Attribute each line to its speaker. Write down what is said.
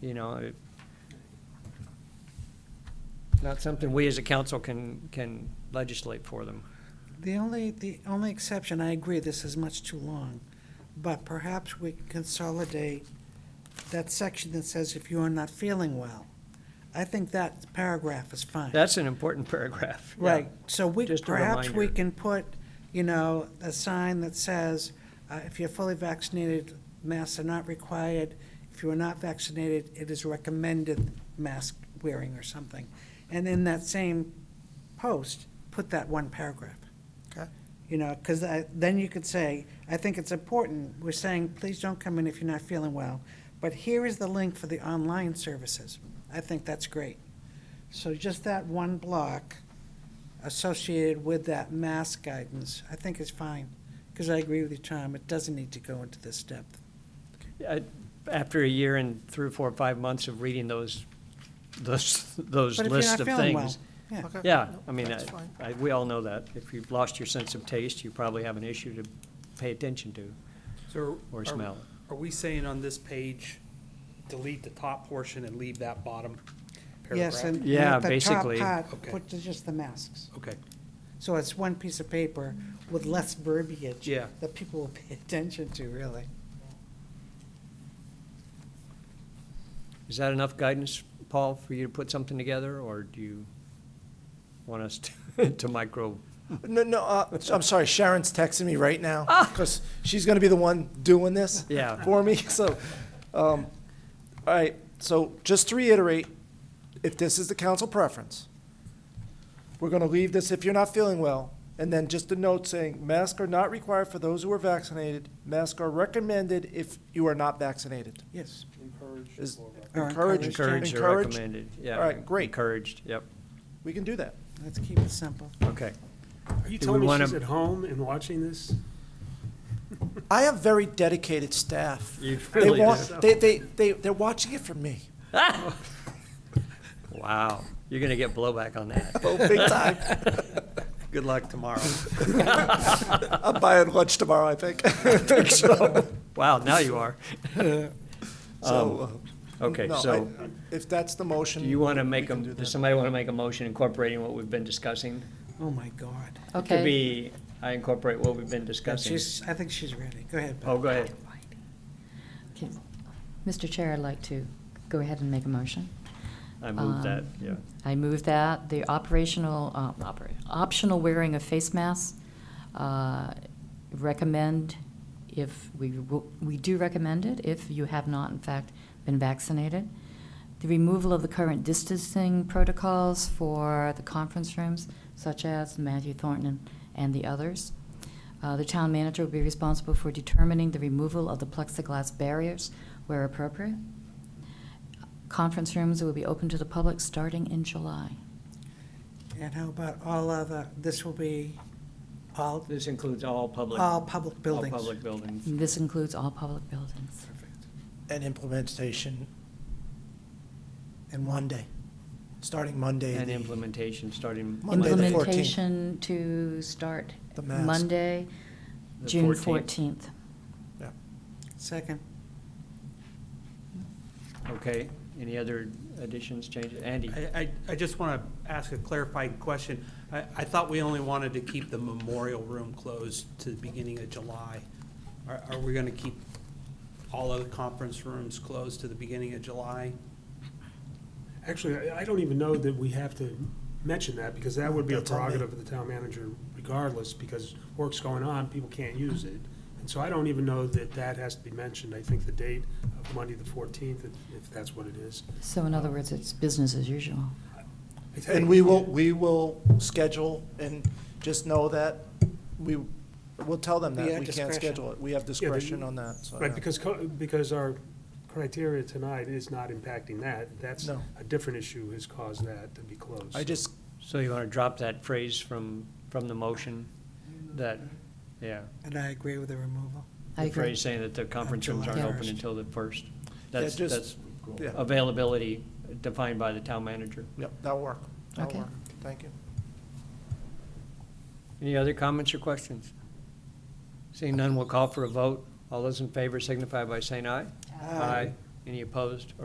Speaker 1: you know, it- not something we as a council can, can legislate for them.
Speaker 2: The only, the only exception, I agree, this is much too long, but perhaps we can consolidate that section that says if you are not feeling well. I think that paragraph is fine.
Speaker 1: That's an important paragraph. yeah.
Speaker 2: Right, so we,
Speaker 1: Just a
Speaker 2: perhaps we
Speaker 1: reminder.
Speaker 2: can put, you know, a sign that says, uh, if you're fully vaccinated, masks are not required. If you are not vaccinated, it is recommended mask wearing or something. And in that same post, put that one paragraph.
Speaker 3: Okay.
Speaker 2: You know, because then you could say, I think it's important, we're saying, please don't come in if you're not feeling well, but here is the link for the online services. I think that's great. So just that one block associated with that mask guidance, I think is fine, because I agree with you, Tom, it doesn't need to go into this depth.
Speaker 1: Uh, After a year and three, four, five months of reading those, those, those
Speaker 2: But if you're
Speaker 1: lists
Speaker 2: not
Speaker 1: of
Speaker 2: feeling well, uh,
Speaker 1: things.
Speaker 2: yeah.
Speaker 3: Okay.
Speaker 1: Yeah,
Speaker 3: Nope,
Speaker 1: I mean,
Speaker 3: That's
Speaker 1: I-
Speaker 3: fine.
Speaker 1: I, we all know that. If you've lost your sense of taste, you probably have an issue to pay attention to
Speaker 4: So are-
Speaker 1: or
Speaker 4: are-
Speaker 1: smell.
Speaker 4: Are we saying on this page, delete the top portion and leave that bottom paragraph?
Speaker 2: Yes, and and
Speaker 1: Yeah,
Speaker 2: at the top
Speaker 1: basically.
Speaker 2: part,
Speaker 4: Okay.
Speaker 2: put the- just the masks.
Speaker 4: Okay,
Speaker 2: So it's one piece of paper with less verbiage.
Speaker 4: Yeah.
Speaker 2: That people will pay attention to, really.
Speaker 1: Is that enough guidance, Paul, for you to put something together, or do you want us to- to micro?
Speaker 3: No, no, uh, I'm sorry, Sharon's texting me right now, because she's gonna be the one doing this.
Speaker 1: Ah. Yeah.
Speaker 3: For me, so, um, all right, so just to reiterate, if this is the council preference, we're gonna leave this if you're not feeling well, and then just a note saying, masks are not required for those who are vaccinated, masks are recommended if you are not vaccinated.
Speaker 2: Yes.
Speaker 3: Is
Speaker 2: Or
Speaker 3: encouraged,
Speaker 1: Encouraged or
Speaker 3: encouraged,
Speaker 1: recommended? Yeah.
Speaker 3: All right, great.
Speaker 1: Encouraged, yep,
Speaker 3: we can do that.
Speaker 2: Let's keep it simple.
Speaker 1: okay.
Speaker 5: Are you
Speaker 1: Do
Speaker 5: telling
Speaker 1: we
Speaker 5: me
Speaker 1: wanna-
Speaker 5: she's at home and watching this?
Speaker 3: I have very dedicated staff.
Speaker 1: You
Speaker 3: They
Speaker 1: really
Speaker 3: want,
Speaker 1: do.
Speaker 3: they, they, they, they're watching it from me.
Speaker 1: Wow, you're gonna get blowback on that.
Speaker 3: Oh, big time.
Speaker 4: good luck tomorrow.
Speaker 3: I'm buying lunch tomorrow, I think. I think
Speaker 1: Um,
Speaker 3: so.
Speaker 1: Wow, now you are.
Speaker 3: So, uh,
Speaker 1: okay,
Speaker 3: no,
Speaker 1: so-
Speaker 3: I- If that's the motion.
Speaker 1: Do you wanna make
Speaker 3: we
Speaker 1: a,
Speaker 3: can do that.
Speaker 1: does somebody wanna make a motion incorporating what we've been discussing?
Speaker 2: Oh, my God.
Speaker 1: It could
Speaker 6: Okay,
Speaker 1: be, I incorporate what we've been discussing.
Speaker 2: She's, I think she's ready. Go ahead,
Speaker 1: Oh,
Speaker 2: Beth.
Speaker 1: go ahead.
Speaker 6: Okay. Mr. Chair, I'd like to go ahead and make a motion.
Speaker 1: I moved that,
Speaker 6: Um,
Speaker 1: yeah.
Speaker 6: I move that the operational, um, oper- optional wearing of face masks, uh, recommend if, we, will- we do recommend it if you have not in fact been vaccinated. The removal of the current distancing protocols for the conference rooms such as Matthew Thornton and- and the others. Uh, The town manager will be responsible for determining the removal of the plexiglass barriers where appropriate. Conference rooms will be open to the public starting in July.
Speaker 2: And how about all other, this will be all,
Speaker 1: This includes all public.
Speaker 2: all public buildings.
Speaker 1: All public buildings.
Speaker 6: This includes all public buildings.
Speaker 3: And implementation in one day, starting Monday.
Speaker 1: And
Speaker 3: the-
Speaker 1: implementation starting.
Speaker 3: Monday the
Speaker 1: Monday.
Speaker 3: 14th.
Speaker 6: Implementation to start
Speaker 3: The mask.
Speaker 6: Monday,
Speaker 1: The
Speaker 6: June
Speaker 1: 14th.
Speaker 6: 14th.
Speaker 2: Second.
Speaker 1: Okay, any other additions, changes? Andy?
Speaker 4: I, I, I just want to ask a clarifying question. I, I thought we only wanted to keep the memorial room closed to the beginning of July. Are, are we going to keep all of the conference rooms closed to the beginning of July?
Speaker 5: Actually, I I don't even know that we have to mention that, because that would be a
Speaker 3: That's on me.
Speaker 5: prerogative of the town manager regardless, because work's going on, people can't use it. And so I don't even know that that has to be mentioned. I think the date of Monday, the 14th, if- if that's what it is.
Speaker 6: So in other words, it's business as usual.
Speaker 5: I think-
Speaker 3: And we will, we will schedule and just know that we, we'll tell them
Speaker 2: We
Speaker 3: that
Speaker 2: have
Speaker 3: we can't
Speaker 2: discretion.
Speaker 3: schedule it. We have
Speaker 5: Yeah, but-
Speaker 3: discretion on that, so.
Speaker 5: Right,
Speaker 3: yeah.
Speaker 5: because, co- because our criteria tonight is not impacting that. That's,
Speaker 3: No.
Speaker 5: a different issue has caused that to be closed.
Speaker 3: I just,
Speaker 1: So you want to drop that phrase from, from the motion? That, yeah.
Speaker 2: And I agree with the removal.
Speaker 6: I
Speaker 1: The
Speaker 6: agree.
Speaker 1: phrase saying that the conference rooms
Speaker 2: July
Speaker 1: aren't open
Speaker 2: 1st.
Speaker 1: until the first. That's,
Speaker 3: just-
Speaker 1: that's
Speaker 3: yeah.
Speaker 5: Oh.
Speaker 1: availability defined by the town manager.
Speaker 3: yep, that'll work. That'll
Speaker 6: Okay.
Speaker 3: work. Thank you.
Speaker 1: Any other comments or questions? Seeing none, we'll call for a vote. All those in favor signify by saying aye. Aye. Any opposed